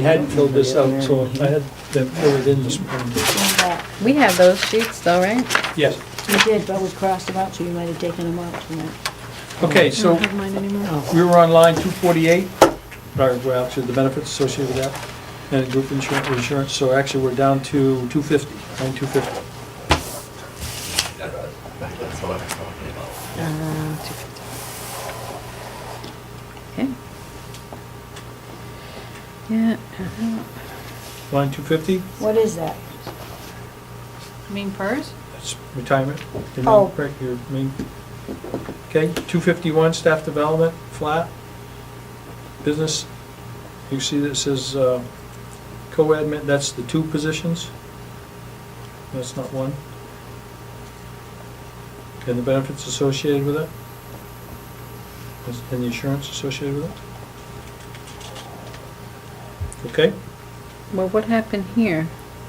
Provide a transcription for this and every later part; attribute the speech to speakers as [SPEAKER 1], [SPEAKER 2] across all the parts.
[SPEAKER 1] We had filled this out, so I had them fill it in this morning.
[SPEAKER 2] We have those sheets though, right?
[SPEAKER 1] Yes.
[SPEAKER 3] You did, but we crossed them out, so you might have taken them out tonight.
[SPEAKER 1] Okay, so
[SPEAKER 2] mine anymore.
[SPEAKER 1] we were on line 248, paragraph to the benefits associated with that, and group insurance, insurance, so actually we're down to 250, line 250.
[SPEAKER 4] That's what I'm talking about.
[SPEAKER 2] Okay. Yeah. uh-huh.
[SPEAKER 1] Line 250,
[SPEAKER 3] What is that?
[SPEAKER 2] Mean purse?
[SPEAKER 1] that's retirement. your main
[SPEAKER 3] Oh.
[SPEAKER 1] break- your main- Okay, 251, staff development, flat. Business, you see that says uh, co-admin, that's the two positions. That's not one. And the benefits associated with it? And the insurance associated with it? Okay,
[SPEAKER 2] Well, what happened here?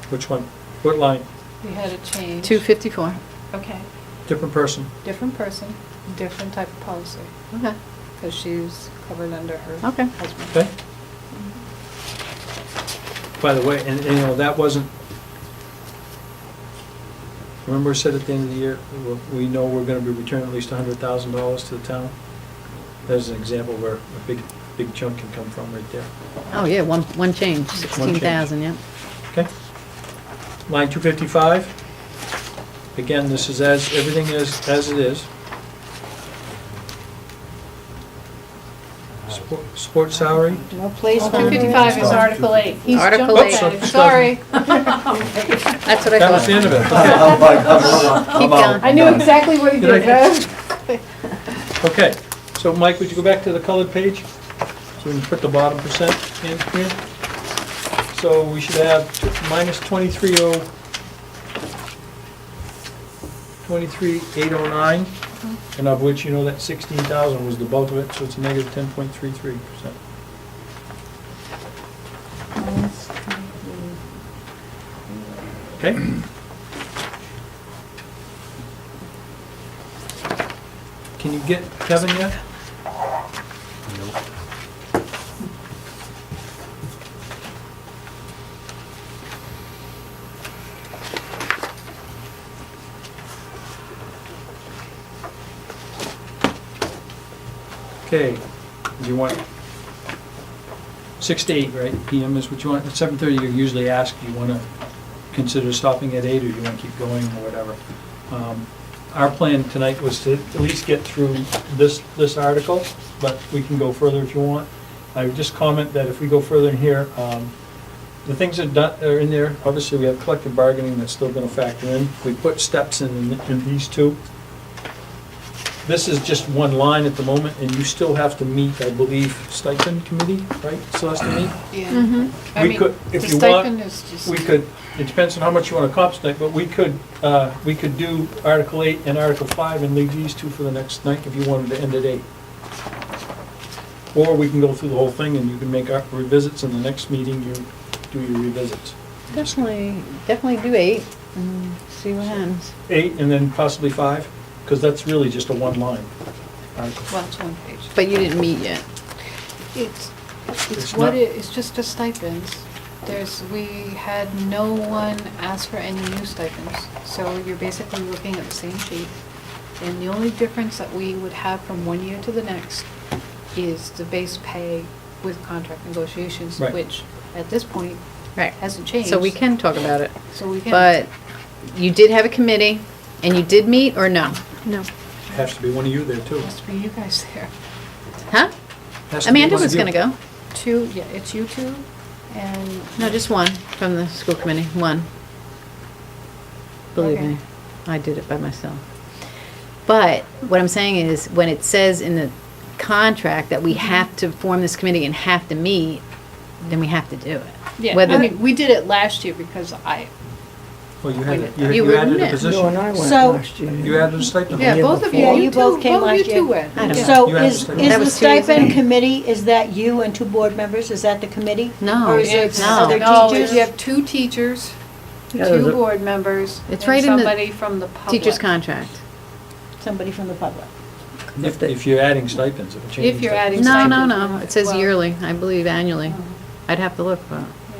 [SPEAKER 1] which one? What line?
[SPEAKER 5] We had a change.
[SPEAKER 2] Two fifty-four.
[SPEAKER 5] Okay,
[SPEAKER 1] Different person?
[SPEAKER 5] different person, different type of policy,
[SPEAKER 2] Okay.
[SPEAKER 5] because she's covered under her
[SPEAKER 2] Okay.
[SPEAKER 5] husband.
[SPEAKER 1] Okay? By the way, and, and, you know, that wasn't, remember I said at the end of the year, we- we know we're gonna be returning at least a hundred thousand dollars to the town? There's an example where a big, big chunk can come from right there,
[SPEAKER 2] Oh, yeah, one, one change, sixteen thousand, yeah.
[SPEAKER 1] okay? Line two fifty-five, again, this is as, everything is as it is. Support- Support salary,
[SPEAKER 3] No placement.
[SPEAKER 4] is Article
[SPEAKER 5] 8.
[SPEAKER 2] He's Article jumping eight. at
[SPEAKER 1] it. Sorry.
[SPEAKER 2] That's what I
[SPEAKER 1] that was the end
[SPEAKER 2] thought.
[SPEAKER 1] of it, okay.
[SPEAKER 4] I'm like, I'm out,
[SPEAKER 2] Keep
[SPEAKER 4] I'm out.
[SPEAKER 2] going.
[SPEAKER 5] I knew exactly what you
[SPEAKER 1] Did
[SPEAKER 5] did.
[SPEAKER 1] I-
[SPEAKER 5] huh?
[SPEAKER 1] Okay, so Mike, would you go back to the colored page? So we can put the bottom percent in here. So we should have t- minus oh, 23,000, 23,809, and of which you know that 16,000 was the bulk of it, so it's a negative 10.33%. Okay? Can you get Kevin yet? Okay, do you want, six to eight, right, PM is what you want, at seven thirty, you usually ask, do you wanna consider stopping at eight, or do you wanna keep going, or whatever? Um, Our plan tonight was to at least get through this, this article, but we can go further if you want. I would just comment that if we go further in here, um, the things that done- are in there, obviously, we have collective bargaining that's still gonna factor in, we put steps in, in these two. This is just one line at the moment, and you still have to meet, I believe, stipend committee, right, Celeste, to meet?
[SPEAKER 5] Yeah. I
[SPEAKER 1] We
[SPEAKER 5] mean,
[SPEAKER 1] could-
[SPEAKER 5] The
[SPEAKER 1] if you want,
[SPEAKER 5] stipend is just.
[SPEAKER 1] We could, it depends on how much you want to cop tonight, but we could, uh, we could do Article 8 and Article 5 and leave these two for the next night if you wanted to end at 8. Or we can go through the whole thing and you can make our revisits and the next meeting you do your revisits.
[SPEAKER 2] Definitely, definitely do eight and see what happens.
[SPEAKER 1] 8 and then possibly 5, because that's really just a Uh, one-line article.
[SPEAKER 5] Well, it's one page.
[SPEAKER 2] But you didn't meet yet.
[SPEAKER 5] It's,
[SPEAKER 1] It's
[SPEAKER 5] it's what,
[SPEAKER 1] not-
[SPEAKER 5] it- it's just the stipends. There's, we had no one ask for any new stipends. So you're basically looking at the same sheet. And the only difference that we would have from one year to the next is the base pay with contract negotiations,
[SPEAKER 1] Right.
[SPEAKER 5] which at this point
[SPEAKER 2] Right.
[SPEAKER 5] hasn't changed.
[SPEAKER 2] So we can talk about it.
[SPEAKER 5] So we can.
[SPEAKER 2] But you did have a committee and you did meet or no?
[SPEAKER 5] No.
[SPEAKER 1] Has to be one of you there too.
[SPEAKER 5] Has to be you guys there.
[SPEAKER 2] Huh?
[SPEAKER 1] Has to be
[SPEAKER 2] Amanda
[SPEAKER 1] one of
[SPEAKER 2] was
[SPEAKER 1] you.
[SPEAKER 2] gonna go.
[SPEAKER 5] Two, yeah, it's you two and.
[SPEAKER 2] No, just one from the school committee, one. Believe
[SPEAKER 5] Okay.
[SPEAKER 2] me, I did it by myself. But what I'm saying is, when it says in the contract that
[SPEAKER 5] Mm-hmm.
[SPEAKER 2] we have to form this committee and have to meet, then we have to do it.
[SPEAKER 5] Yeah, I
[SPEAKER 2] Whether-
[SPEAKER 5] mean, we did it last year because I,
[SPEAKER 1] Well, you had, it- you
[SPEAKER 2] You
[SPEAKER 1] you
[SPEAKER 2] were
[SPEAKER 1] added
[SPEAKER 2] in
[SPEAKER 1] a
[SPEAKER 2] it.
[SPEAKER 6] No, and
[SPEAKER 1] position.
[SPEAKER 6] I went
[SPEAKER 3] So-
[SPEAKER 6] last year.
[SPEAKER 1] You added a stipend.
[SPEAKER 5] yeah,
[SPEAKER 6] year
[SPEAKER 5] both of you,
[SPEAKER 6] before.
[SPEAKER 3] Yeah, you
[SPEAKER 5] you
[SPEAKER 3] both
[SPEAKER 5] two,
[SPEAKER 3] came
[SPEAKER 5] both of you
[SPEAKER 3] last
[SPEAKER 5] two
[SPEAKER 3] year.
[SPEAKER 5] went.
[SPEAKER 2] I don't
[SPEAKER 5] Yeah.
[SPEAKER 2] know.
[SPEAKER 3] So
[SPEAKER 1] You have
[SPEAKER 3] is,
[SPEAKER 1] to-
[SPEAKER 2] That
[SPEAKER 3] is the
[SPEAKER 2] was two years
[SPEAKER 3] stipend
[SPEAKER 2] ago.
[SPEAKER 3] committee, is that you and two board members? Is that the committee?
[SPEAKER 2] No,
[SPEAKER 3] Or is
[SPEAKER 5] It's-
[SPEAKER 3] it
[SPEAKER 2] no.
[SPEAKER 3] other
[SPEAKER 5] Oh, No, it's- you
[SPEAKER 3] teachers?
[SPEAKER 5] have two teachers,
[SPEAKER 6] Yeah, there's
[SPEAKER 5] two
[SPEAKER 6] a-
[SPEAKER 5] board members, and
[SPEAKER 2] It's right in the
[SPEAKER 5] somebody from the public.
[SPEAKER 2] Teacher's contract.
[SPEAKER 3] Somebody from the public.
[SPEAKER 1] If, if you're adding stipends, it would change.
[SPEAKER 5] If you're
[SPEAKER 1] that.
[SPEAKER 5] adding
[SPEAKER 2] No, no,
[SPEAKER 5] stipend.
[SPEAKER 2] no, it says
[SPEAKER 5] Well-
[SPEAKER 2] yearly, I believe annually.
[SPEAKER 5] Oh.
[SPEAKER 2] I'd have to look, but.